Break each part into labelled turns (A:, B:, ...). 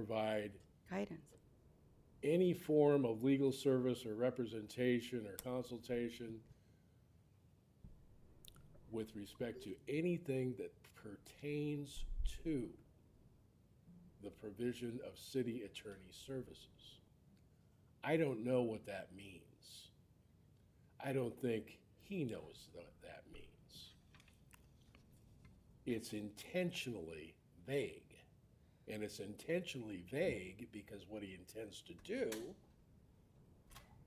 A: provide
B: guidance.
A: any form of legal service or representation or consultation with respect to anything that pertains to the provision of city attorney services. I don't know what that means. I don't think he knows what that means. It's intentionally vague. And it's intentionally vague because what he intends to do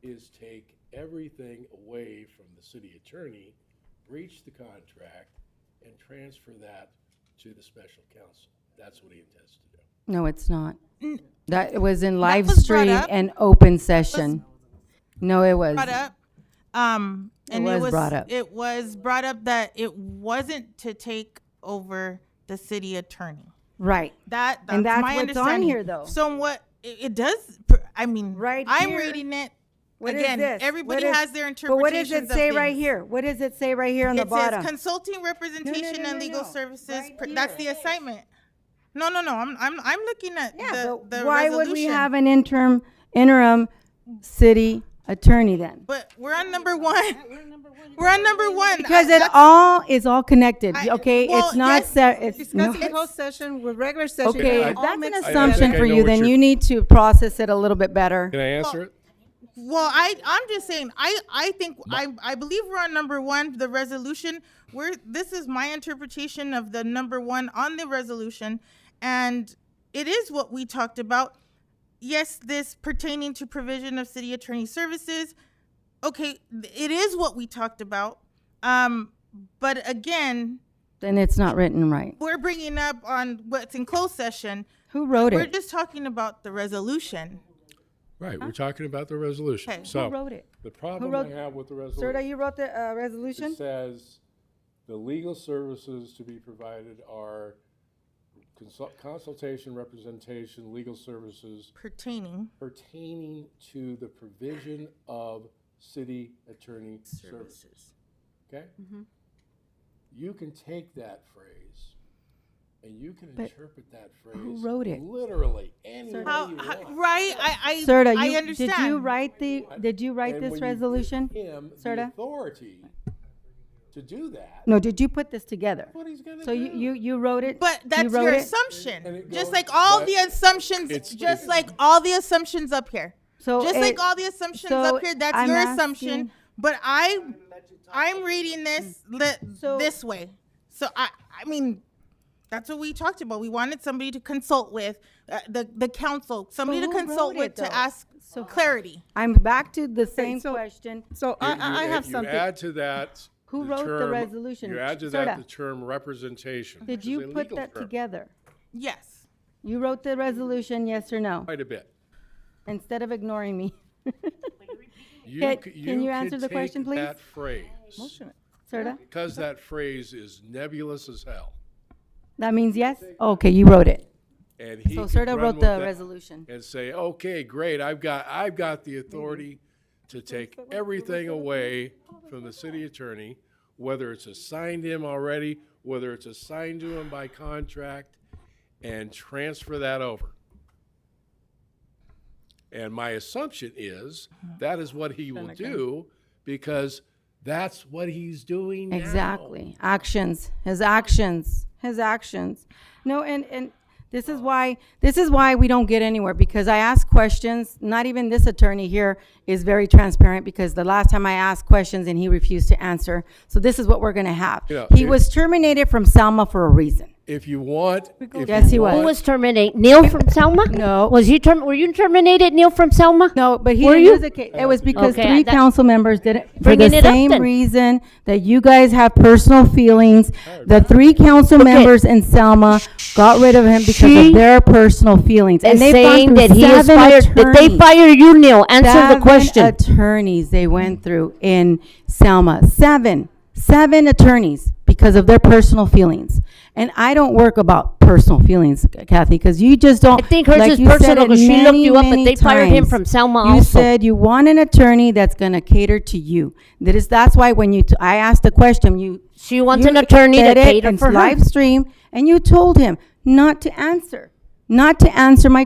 A: is take everything away from the city attorney, breach the contract, and transfer that to the special counsel. That's what he intends to do.
B: No, it's not. That was in live
C: was brought
B: stream
C: up.
B: and open session. No, it was.
C: brought up. Um,
B: It
C: and
B: was brought up.
C: It was brought up that it wasn't to take over the city attorney.
B: Right.
C: That that's
B: And that's
C: my
B: what's on
C: understanding.
B: here, though.
C: So what it, it does, per- I mean,
B: Right
C: I'm
B: here.
C: reading it.
B: What is
C: Again,
B: this?
C: everybody
B: What is-
C: has their
B: But what does it
C: interpretations of
B: say right
C: things.
B: here? What does it say right here on the
C: it says
B: bottom?
C: consulting representation
B: no,
C: and
B: no,
C: legal
B: no.
C: services.
B: Right
C: pr- that's the
B: here.
C: assignment. No, no, no. I'm I'm I'm looking at
B: Yeah,
C: the,
B: but
C: the
B: why would
C: resolution.
B: we have an interim, interim city attorney then?
C: But we're on number one. We're on number one.
B: Because
C: I-
B: it all is all connected,
C: I-
B: okay?
C: well,
B: It's not,
C: yes,
B: se- it's, no,
D: Discussing closed session with regular session.
B: okay,
D: it
B: if
D: all
B: that's an
D: mixed
B: assumption
D: together.
A: I
B: for
A: know
B: you,
A: what
B: then
A: you're-
B: you need to process it a little bit better.
A: Can I answer it?
C: Well, I I'm just saying I I think I I believe we're on number one the resolution. We're this is my interpretation of the number one on the resolution, and it is what we talked about. Yes, this pertaining to provision of city attorney services. Okay, th- it is what we talked about. Um, but again,
B: Then it's not written right.
C: we're bringing up on what's in closed session.
B: Who wrote
C: We're
B: it?
C: just talking about the resolution.
A: Right, we're talking about the resolution.
C: Okay.
A: So
B: Who wrote it?
A: The problem
B: wrote-
A: I have with the resolution.
B: Serta, you wrote the uh, resolution?
A: It says, the legal services to be provided are consult- consultation, representation, legal services
C: Pertaining.
A: pertaining to the provision of city attorney services. Okay?
C: Mm-hmm.
A: You can take that phrase and you can
B: But
A: interpret that phrase.
B: wrote it?
A: Literally, any way you
C: How, how,
A: want.
C: right? I I,
B: Serta,
C: I
B: you,
C: understand.
B: did you write the, did you write
A: And
B: this
A: when you give
B: resolution?
A: Him the
B: Serta?
A: authority to do that,
B: No, did you put this together?
A: what he's gonna do.
B: So you, you, you wrote it?
C: But
B: You
C: that's
B: wrote
C: your
B: it?
A: And it
C: assumption. Just
A: goes-
C: like all
A: but
C: the assumptions,
A: it's-
C: just
A: it's-
C: like all the assumptions up here.
B: So
C: just
B: it-
C: like all the assumptions
B: so
C: up here, that's
B: I'm
C: your
B: asking-
C: assumption. But I, I'm reading this le-
B: Mm. So-
C: this way. So I, I mean, that's what we talked about. We wanted somebody to consult with uh, the the council, somebody to
B: who wrote
C: consult with
B: it, though?
C: to ask clarity.
B: I'm back to the same
D: so-
B: question.
D: So I,
A: You-
D: I I
A: you-
D: have
A: You
D: something.
A: add to that.
B: Who wrote the
A: term-
B: resolution?
A: You add to
B: Sorta.
A: that the term representation. which
B: Did
A: is a
B: you put
A: legal
B: that
A: term,
B: together?
C: Yes.
B: You wrote the resolution, yes or no,
A: Quite a bit.
B: instead of ignoring me.
A: You
B: Can-
A: c-
B: can you answer
A: could
B: the question,
A: take
B: please?
A: That phrase,
B: Serta,
A: because that phrase is nebulous as hell.
B: that means yes? Okay, you wrote it.
A: And he
B: So
A: could
B: Serta
A: run
B: wrote
A: with
B: the
A: that
B: resolution.
A: And say, okay, great, I've got, I've got the authority to take everything away from the city attorney, whether it's assigned him already, whether it's assigned to him by contract, and transfer that over. And my assumption is that is what he will do because that's what he's doing now.
B: Exactly. Actions, his actions, his actions. No, and, and this is why, this is why we don't get anywhere, because I ask questions, not even this attorney here is very transparent, because the last time I asked questions and he refused to answer. So this is what we're gonna have.
A: Yeah,
B: He
A: it-
B: was terminated from Salma for a reason.
A: If you want, if
B: Yes,
A: you
B: he was.
E: Who was terminated? Neil from Selma?
B: No.
E: Was he term? Were you terminated, Neil from Selma?
B: No, but he
E: Were
B: didn't
E: you?
B: lose the case. It was because
E: Okay,
B: three
E: that-
B: council members did it for the
E: Bringing it up
B: same
E: then.
B: reason that you guys have personal feelings. The three council members in Selma got rid of him because
E: She
B: of their personal feelings. And
E: And
B: they've
E: saying
B: gone
E: that
B: through
E: he is
B: seven
E: fired. Did they
B: attorneys.
E: fire you, Neil? Answer the
B: Seven
E: question.
B: attorneys they went through in Selma. Seven, seven attorneys because of their personal feelings. And I don't work about personal feelings, Kathy, because you just don't.
E: I think hers
B: like
E: is
B: you said
E: personal
B: it
E: 'cause she
B: many,
E: looked you up, but
B: many
E: they fired him
B: times.
E: from Selma
B: You
E: also.
B: said you want an attorney that's going to cater to you. That is, that's why when you, t- I asked the question, you.
E: She wants
B: you
E: an attorney to
B: said it
E: cater
B: in
E: for her.
B: Live stream, and you told him not to answer, not to answer my